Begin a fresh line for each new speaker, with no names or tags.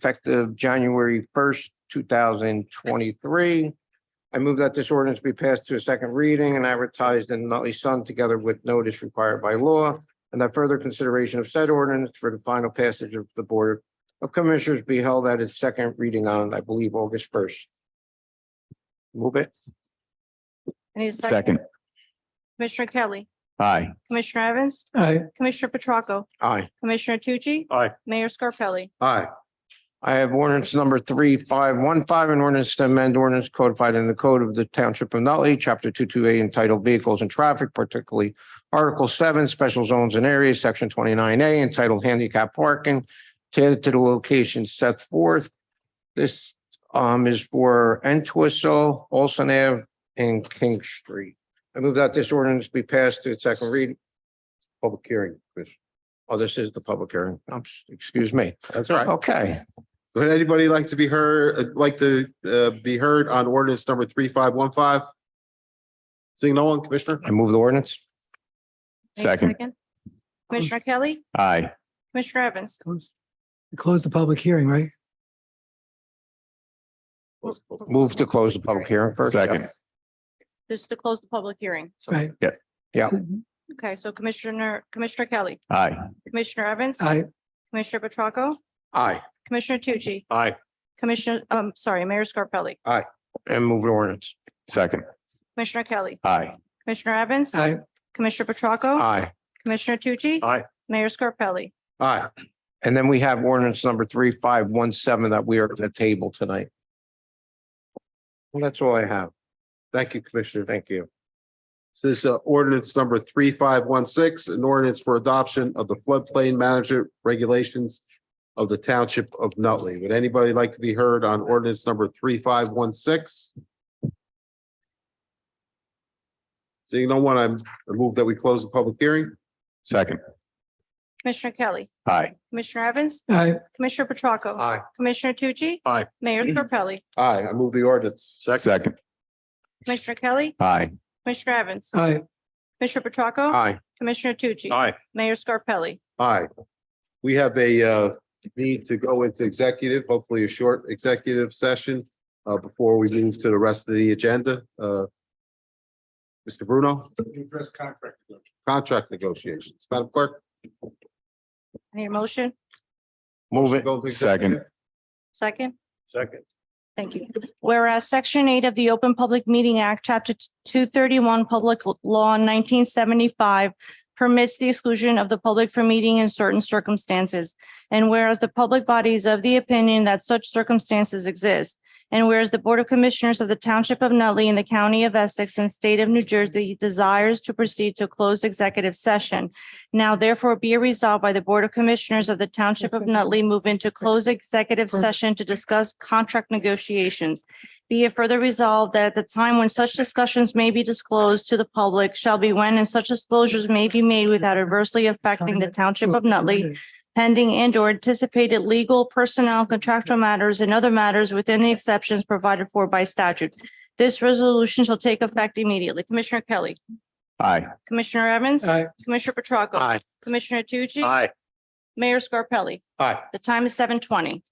effective January first, two thousand twenty-three. I move that this ordinance be passed to a second reading and advertised in the Nutley Sun together with notice required by law. And that further consideration of said ordinance for the final passage of the Board of Commissioners be held at its second reading on, I believe, August first. Move it.
I need a second.
Second.
Commissioner Kelly.
Aye.
Commissioner Evans.
aye,
Commissioner Petracca.
Aye.
Commissioner Tucci.
Aye.
Mayor Scarpelli.
Aye. I have ordinance number three, five, one, five, an ordinance to amend ordinance codified in the code of the Township of Nutley, chapter two, two, eight, entitled Vehicles and Traffic, particularly Article seven, Special Zones and Areas, section twenty-nine A, entitled Handicap Parking, tailored to the location set forth. This um is for Entwistle, Olson Ave, and King Street. I move that this ordinance be passed to its second reading.
Public hearing, Chris.
Oh, this is the public hearing. Um, excuse me.
That's all right.
Okay.
Would anybody like to be heard, like to uh, be heard on ordinance number three, five, one, five? Seeing no one, Commissioner?
I move the ordinance.
I need a
Second.
Commissioner Kelly.
Aye.
Commissioner Evans.
close, close the public hearing, right?
Move to close the public hearing first. yeah.
Second.
This is to close the public hearing.
Right.
Yeah.
Yeah.
Okay, so Commissioner, Commissioner Kelly,
Aye.
Commissioner Evans.
Aye,
Commissioner Petracca.
Aye,
Commissioner Tucci.
Aye.
Commissioner, um, sorry, Mayor Scarpelli.
and move the ordinance.
Second.
Commissioner Kelly.
Aye.
Commissioner Evans.
aye,
Commissioner Petracca.
Aye,
Commissioner Tucci.
Aye.
Mayor Scarpelli.
aye. And then we have ordinance number three, five, one, seven that we are at the table tonight. Well, that's all I have.
Thank you, Commissioner.
Thank you.
So This is uh, ordinance number three, five, one, six, an ordinance for adoption of the floodplain management regulations of the township of Nutley. Would anybody like to be heard on ordinance number three, five, one, six? Seeing no one, I'm, I move that we close the public hearing.
Second.
Commissioner Kelly.
Aye.
Commissioner Evans.
aye,
Commissioner Petracca.
Aye.
Commissioner Tucci.
Aye.
Mayor Scarpelli.
Aye, I move the ordinance.
Second.
Second.
Commissioner Kelly.
Aye.
Commissioner Evans.
aye,
Commissioner Petracca.
Aye.
Commissioner Tucci.
Aye.
Mayor Scarpelli.
Aye. We have a uh need to go into executive, hopefully a short executive session uh before we move to the rest of the agenda. Uh. Mr. Bruno? Contract negotiations. Madam Clerk?
Any motion?
Move it.
go into
Second.
executive.
Second?
Second.
Thank you. Whereas Section 8 of the Open Public Meeting Act, Chapter 231, Public Law 1975 permits the exclusion of the public from meeting in certain circumstances. And whereas the public body is of the opinion that such circumstances exist. And whereas the Board of Commissioners of the Township of Nutley in the County of Essex and State of New Jersey desires to proceed to a closed executive session. Now therefore be it resolved by the Board of Commissioners of the Township of Nutley move into closed executive
Perfect.
session to discuss contract negotiations. Be it further resolved that at the time when such discussions may be disclosed to the public shall be when and such disclosures may be made without adversely affecting the Township of Nutley pending and or anticipated legal, personnel, contractual matters and other matters within the exceptions provided for by statute. This resolution shall take effect immediately. Commissioner Kelly,
Aye.
Commissioner Evans,
aye.
Commissioner Petracca,
Aye.
Commissioner Tucci,
Aye.
Mayor Scarpelli.
Aye.
The time is seven twenty.